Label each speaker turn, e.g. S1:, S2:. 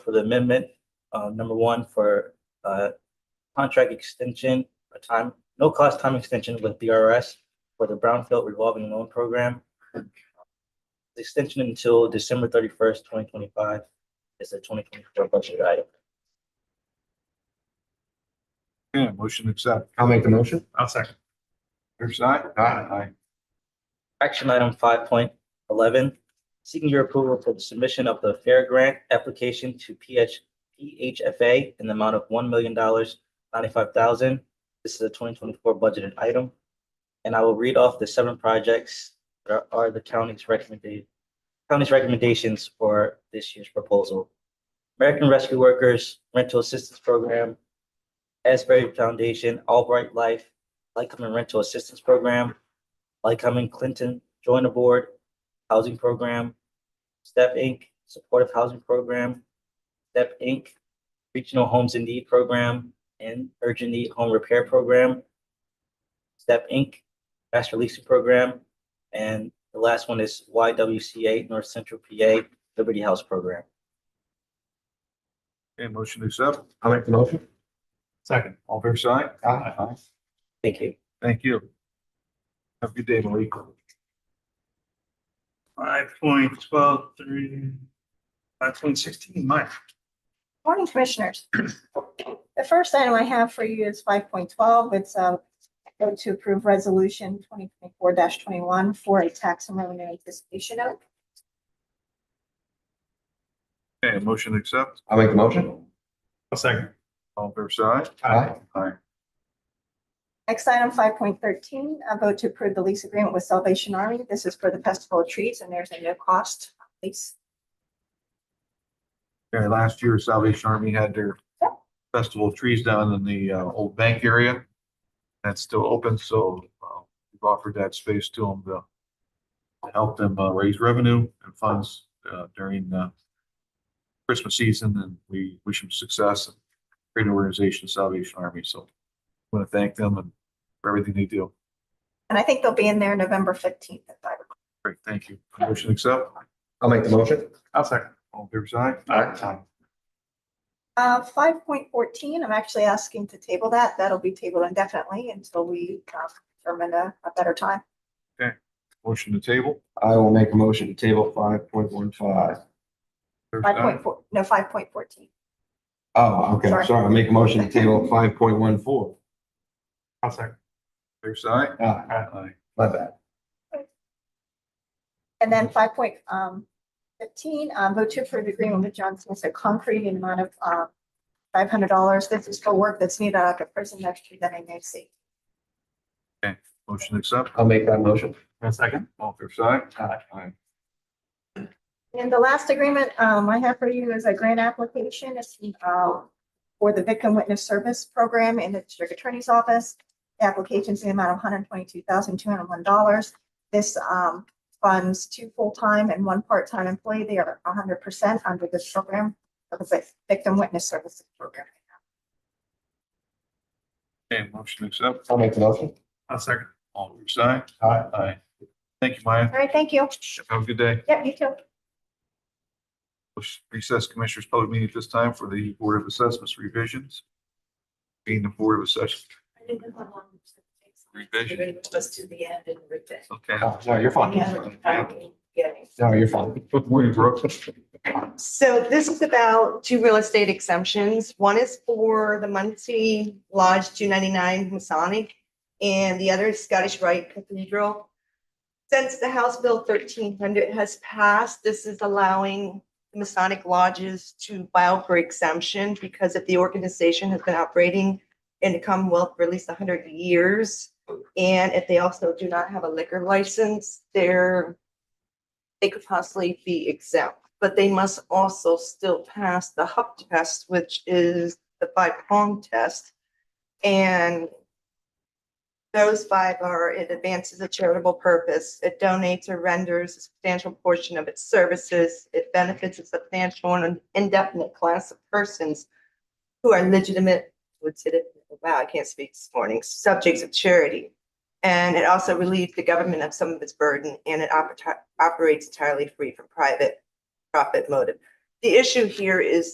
S1: for the amendment, uh, number one for, uh, contract extension, a time, no cost time extension with BRS for the Brownfield revolving loan program. The Extension until December thirty-first, twenty twenty-five is a twenty twenty-four budget item.
S2: Yeah, motion accept.
S3: I'll make the motion.
S4: I'll second.
S2: Fair side? Aye.
S1: Action item five point eleven, seeking your approval for the submission of the fair grant application to PH, PHFA in the amount of one million dollars, ninety-five thousand. This is a twenty twenty-four budgeted item. And I will read off the seven projects that are the county's recommended, county's recommendations for this year's proposal. American Rescue Workers Rental Assistance Program, Asbury Foundation, Albright Life, Lycoming Rental Assistance Program, Lycoming Clinton Join the Board Housing Program, Step Inc. Supportive Housing Program, Step Inc. Regional Homes in Need Program, and Urgent Need Home Repair Program, Step Inc. Master Leasing Program, and the last one is YWCA North Central PA Liberty House Program.
S2: Okay, motion accept.
S3: I'll make the motion.
S4: Second.
S2: All fair side? Aye.
S1: Thank you.
S2: Thank you. Have a good day, Malik.
S4: Five point twelve three, five point sixteen, Mike.
S5: Morning, Commissioners. The first item I have for you is five point twelve. It's a vote to approve resolution twenty twenty-four twenty-one for a tax and revenue anticipation note.
S2: Okay, motion accept.
S3: I'll make the motion.
S4: I'll second.
S2: All fair side?
S3: Aye.
S2: Aye.
S5: Next item, five point thirteen, a vote to approve the lease agreement with Salvation Army. This is for the Festival of Trees and there's a no cost lease.
S2: Okay, last year Salvation Army had their festival of trees down in the uh, old bank area. That's still open, so uh, we've offered that space to them to to help them uh, raise revenue and funds uh, during uh, Christmas season, and we wish them success. and Great organization, Salvation Army, so I want to thank them and for everything they do.
S5: And I think they'll be in there November fifteenth if I recall.
S2: Great, thank you. Motion accept.
S3: I'll make the motion.
S4: I'll second.
S2: All fair side?
S3: Aye.
S5: Uh, five point fourteen, I'm actually asking to table that. That'll be tabled indefinitely until we uh, determine a, a better time.
S2: Motion to table.
S3: I will make a motion to table five point one five.
S2: Fair
S5: Five
S2: side?
S5: point four, no, five point fourteen.
S3: Oh, okay,
S5: Sorry.
S3: sorry. I'll make a motion to table five point one four.
S4: I'll second.
S2: Fair side?
S3: Ah,
S2: Aye.
S3: my bad.
S5: And then five point um fifteen, um, vote to approve agreement with Johnson Smith Concrete in amount of um five hundred dollars. This is for work that's needed out of prison next year that I may see.
S2: Motion accept.
S3: I'll make that motion.
S4: I'll second.
S2: All fair side? Aye.
S5: And the last agreement um I have for you is a grant application. It's uh for the Victim Witness Service Program in the District Attorney's Office. The Application's in the amount of one hundred twenty-two thousand, two hundred one dollars. This um funds two full-time and one part-time employee. They are hundred percent under this program. That was a Victim Witness Services Program.
S2: Okay, motion accept.
S3: I'll make the motion.
S4: I'll second.
S2: All fair side?
S3: Aye.
S2: Aye. Thank you, Maya.
S5: All right, thank you.
S2: Have a good day.
S5: Yep, you too.
S2: Recess Commissioners Public Meeting at this time for the Board of Assessments revisions. Being the Board of Assessments revision,
S6: You're gonna move us to the end and rip it.
S2: okay.
S3: Oh, No, you're fine. No, you're fine.
S2: Good morning, Brooke.
S7: So this is about two real estate exemptions. One is for the Muncie Lodge two ninety-nine Masonic and the other is Scottish Rite Cathedral. Since the House Bill thirteen hundred has passed, this is allowing Masonic lodges to file for exemption because if the organization has been operating in the Commonwealth for at least hundred years, and if they also do not have a liquor license, they're they could possibly be exempt, but they must also still pass the HUP test, which is the five prong test. And those five are, it advances a charitable purpose, it donates or renders a substantial portion of its services, it benefits a substantial and indefinite class of persons who are legitimate, legitimate, wow, I can't speak this morning, subjects of charity. And it also relieves the government of some of its burden and it operati- operates entirely free from private profit motive. The issue here is